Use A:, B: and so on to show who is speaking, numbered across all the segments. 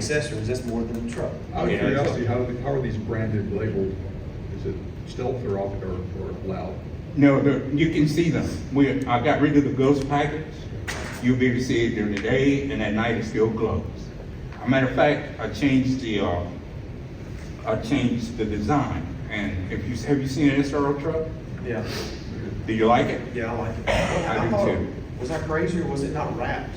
A: accessories, that's more than a truck.
B: Out of
A: You know,
B: curiosity, how, do the- how are these branded labeled? Is it stealth or off, or, or loud?
C: No, the, you can see them. We, I got rid of the ghost packets. You'll be able to see it during the day and at night it's still closed. A matter of fact, I changed the, uh, I changed the design. And if you, have you seen an SRO truck?
A: Yeah,
C: Do you like it?
A: yeah, I like it.
C: I do
D: thought-
C: too.
D: Was I crazy or was it not wrapped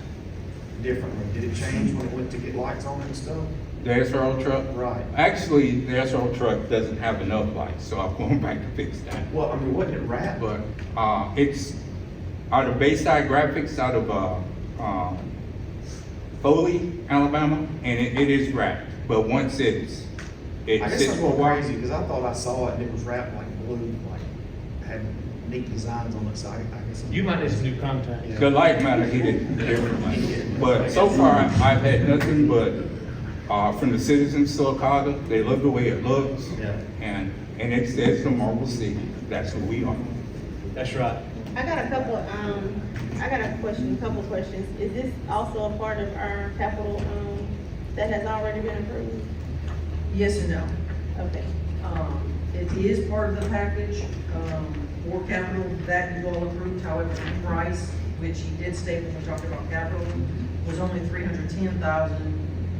D: differently? Did it change when it went to get lights on and stuff?
C: The SRO truck?
D: Right.
C: Actually, the SRO truck doesn't have enough lights, so I'm going back to fix that.
D: Well, I mean, wasn't it wrapped?
C: But, uh, it's out of Bayside Graphics, out of, uh, um, Foley, Alabama, and it, it is wrapped. But once it's, it
D: I guess
C: sits
D: I'm
C: for a
D: going
C: while.
D: crazy because I thought I saw it and it was wrapped like blue, like had neat designs on it, so I, I guess. I'm-
E: You might need some new contacts.
C: The light matter hit it differently. But so far, I've had nothing but, uh, from the citizens of Silicaca, they love the way it looks.
D: Yeah.
C: And, and it says the Marble City, that's who we are.
E: That's right.
F: I got a couple, um, I got a question, couple questions. Is this also a part of our capital, um, that has already been approved?
G: Yes and no.
F: Okay.
G: Um, It is part of the package um, for capital that you all approved, however, the price, which he did state when we talked about capital, was only three hundred ten thousand,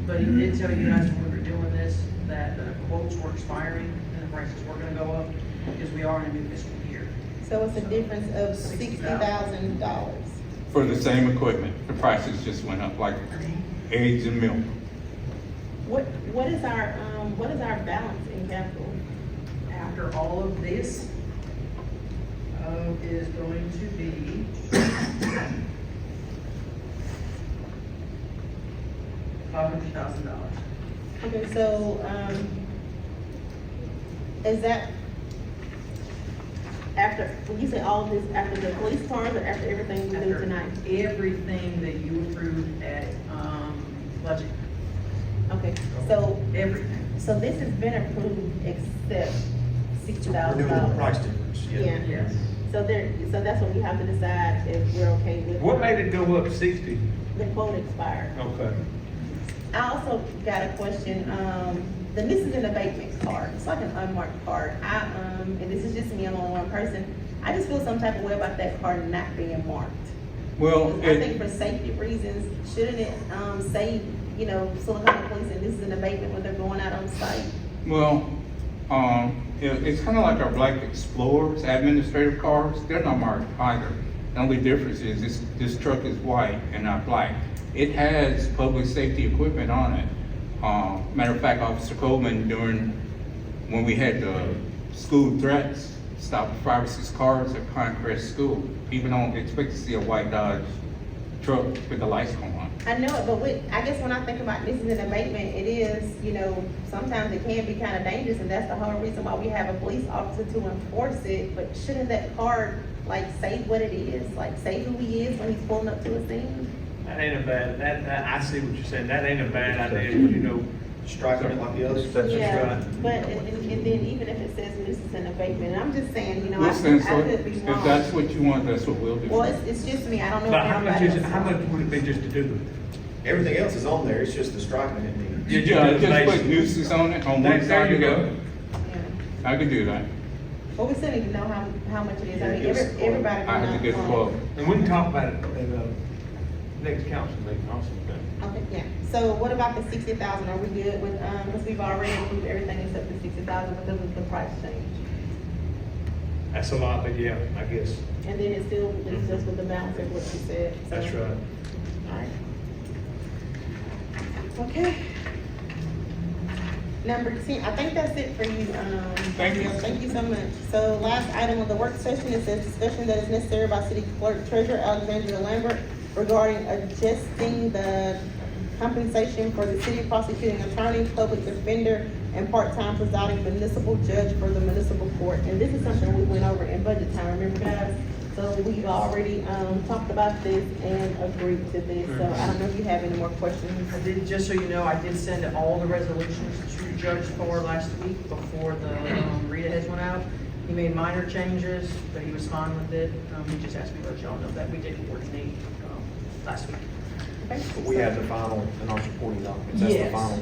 G: but he did tell you guys when we were doing this, that the quotes were expiring and the prices were gonna go up, because we are in a new fiscal year.
F: So it's a difference of sixty thousand dollars.
C: For the same equipment, the prices just went up like eggs and milk.
F: What, what is our, um, what is our balance in capital?
G: After all of this, uh, is going to be. Five hundred thousand dollars.
F: Okay, so, um, is that after, when you say all of this, after the police cars or after everything we do
G: After
F: tonight?
G: Everything that you approved at, um, budget,
F: Okay, so,
G: everything.
F: so this has been approved except sixty
D: We're
F: thousand
D: doing the
F: dollars.
D: price difference, yeah.
F: Yeah,
G: Yes.
F: so there, so that's what we have to decide if we're okay with.
E: What made it go up sixty?
F: The quote expired.
B: Oh.
E: Okay.
F: I also got a question, um, the missing an abatement card, it's like an unmarked card. I, um, and this is just me, I'm only one person, I just feel some type of way about that card not being marked.
C: Well,
F: I
C: it.
F: think for safety reasons, shouldn't it, um, say, you know, Silicon Police and this is an abatement when they're going out on site?
C: Well, um, it, it's kind of like our Black Explorers, administrative cars, they're not marked either. The only difference is this, this truck is white and not black. It has public safety equipment on it. Uh, matter of fact, Officer Coleman during, when we had the school threats, stopped five or six cars at Pinecrest School. People don't expect to see a white Dodge truck with the lights on.
F: I know it, but with, I guess when I think about this is an abatement, it is, you know, sometimes it can be kind of dangerous, and that's the whole reason why we have a police officer to enforce it, but shouldn't that card, like, say what it is, like, say who he is when he's pulling up to a scene?
E: That ain't a bad, that, that, I see what you're saying, that ain't a bad idea, you know,
D: Striking it like the others.
F: Yeah,
E: right.
F: but, and, and and then even if it says this is an abatement, I'm just saying, you know, I
C: Listen,
F: could,
C: so
F: I could be
C: if
F: wrong.
C: that's what you want, that's what we'll do.
F: Well, it's, it's just me, I don't know.
E: but
F: if
E: how much
F: everybody
E: is, it-
F: else-
E: how much would it be just to do the?
D: Everything else is on there, it's just the striking it needs.
E: you
C: Yeah,
E: do the
C: just put
E: basic.
C: nuisance on it, on
E: There-
C: one
E: there
C: side
E: you
C: of
E: go.
C: it.
F: Yeah.
C: I could do that.
F: But we still need to know how, how much it is,
D: Yeah,
F: I mean,
D: give us a
F: every-
D: quote.
F: everybody.
C: I have to get a quote.
E: And we can talk about it at, uh, next council meeting also, okay?
F: Okay, yeah, so what about the sixty thousand, are we good with, um, because we've already approved everything except the sixty thousand because of the price change?
E: That's a lot, but yeah, I guess,
F: And then it still leaves us with the balance of what you said. so-
E: that's right.
F: Alright. Okay. Number ten, I think that's it for you, um.
C: Thank you.
F: Thank you so much. So last item of the work session is a discussion that is necessary by city clerk treasurer Alexandria Lambert regarding adjusting the compensation for the city prosecuting attorney, public defender, and part-time presiding municipal judge for the municipal court. And this is something we went over in budget time, remember guys? So we've already, um, talked about this and agreed to this, so I don't know if you have any more questions.
G: I did, just so you know, I did send all the resolutions to Judge Thor last week before the um, read aheads went out. He made minor changes, but he was fine with it. Um, he just asked me to let y'all know that we did coordinate, um, last week.
F: Okay.
D: But we have the final, in our supporting documents, that's the
G: Yes.
D: final